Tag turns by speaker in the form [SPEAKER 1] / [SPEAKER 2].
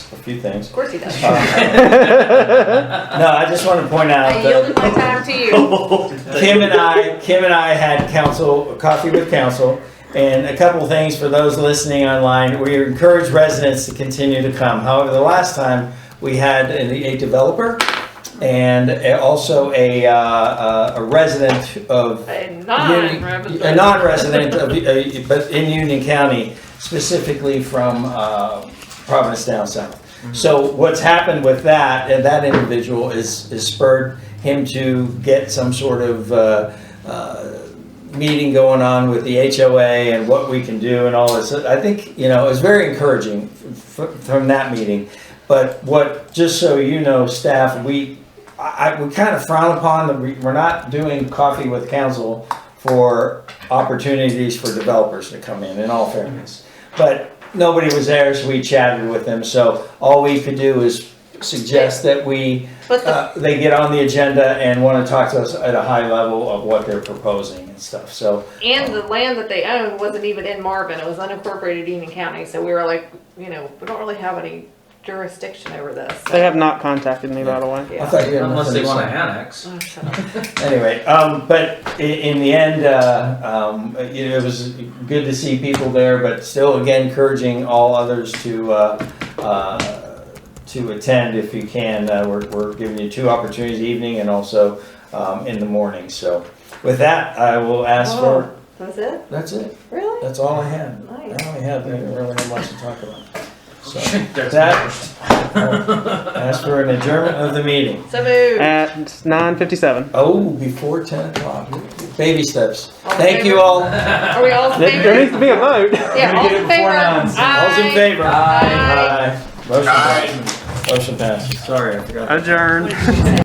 [SPEAKER 1] a few things. Uh,
[SPEAKER 2] Of course he does.
[SPEAKER 1] No, I just want to point out
[SPEAKER 2] I
[SPEAKER 1] that
[SPEAKER 2] yielded my time to you.
[SPEAKER 1] Kim and I, Kim and I had council, coffee with council, and a couple things for those listening online. We encourage residents to continue to come. However, the last time, we had a a developer and also a, uh, uh, a resident of
[SPEAKER 2] A
[SPEAKER 1] Union- A
[SPEAKER 2] non-resident.
[SPEAKER 1] non-resident, of- uh, but in Union County, specifically from uh, Providence down south. So what's happened with that, and that individual is, is spurred him to get some sort of uh, uh, meeting going on with the HOA and what we can do and all this. I think, you know, it was very encouraging f- f- from that meeting. But what, just so you know, staff, we, I, I- we kind of frown upon the, we- we're not doing coffee with council for opportunities for developers to come in, in all fairness. But nobody was there, so we chatted with them, so all we could do is suggest that we,
[SPEAKER 2] But the,
[SPEAKER 1] uh, they get on the agenda and want to talk to us at a high level of what they're proposing and stuff, so.
[SPEAKER 2] and the land that they owned wasn't even in Marvin. It was unincorporated Union County. So we were like, you know, we don't really have any jurisdiction over this.
[SPEAKER 3] They have not contacted me, by the way.
[SPEAKER 1] I
[SPEAKER 2] Yeah.
[SPEAKER 1] thought you had
[SPEAKER 4] Unless they
[SPEAKER 1] nothing to say.
[SPEAKER 4] want to annex.
[SPEAKER 2] Oh, shut up.
[SPEAKER 1] Anyway, um, but i- in the end, uh, um, you know, it was good to see people there, but still again encouraging all others to, uh, uh, to attend if you can. Uh, we're, we're giving you two opportunities evening and also, um, in the morning. So with that, I will ask for,
[SPEAKER 2] Oh, That's it?
[SPEAKER 1] that's it.
[SPEAKER 2] Really?
[SPEAKER 1] That's all I have.
[SPEAKER 2] Nice.
[SPEAKER 1] I only have, I don't really have much to talk about. So
[SPEAKER 4] That's
[SPEAKER 1] that, I'll ask for an adjournment of the meeting.
[SPEAKER 2] So moved.
[SPEAKER 3] At 9:57.
[SPEAKER 1] Oh, before ten o'clock. Baby steps.
[SPEAKER 2] All in
[SPEAKER 1] Thank you
[SPEAKER 2] favor?
[SPEAKER 1] all.
[SPEAKER 2] Are we all in
[SPEAKER 3] There there
[SPEAKER 2] favor?
[SPEAKER 3] needs to be a vote.
[SPEAKER 2] Yeah, all
[SPEAKER 1] We're gonna get
[SPEAKER 2] in
[SPEAKER 1] it before
[SPEAKER 2] favor?
[SPEAKER 1] nine. All's in
[SPEAKER 2] Aye.
[SPEAKER 1] favor.
[SPEAKER 2] Aye.
[SPEAKER 1] Aye. Motion passes. Motion passes. Sorry, I forgot.
[SPEAKER 3] Adjourn.
[SPEAKER 2] What did you say?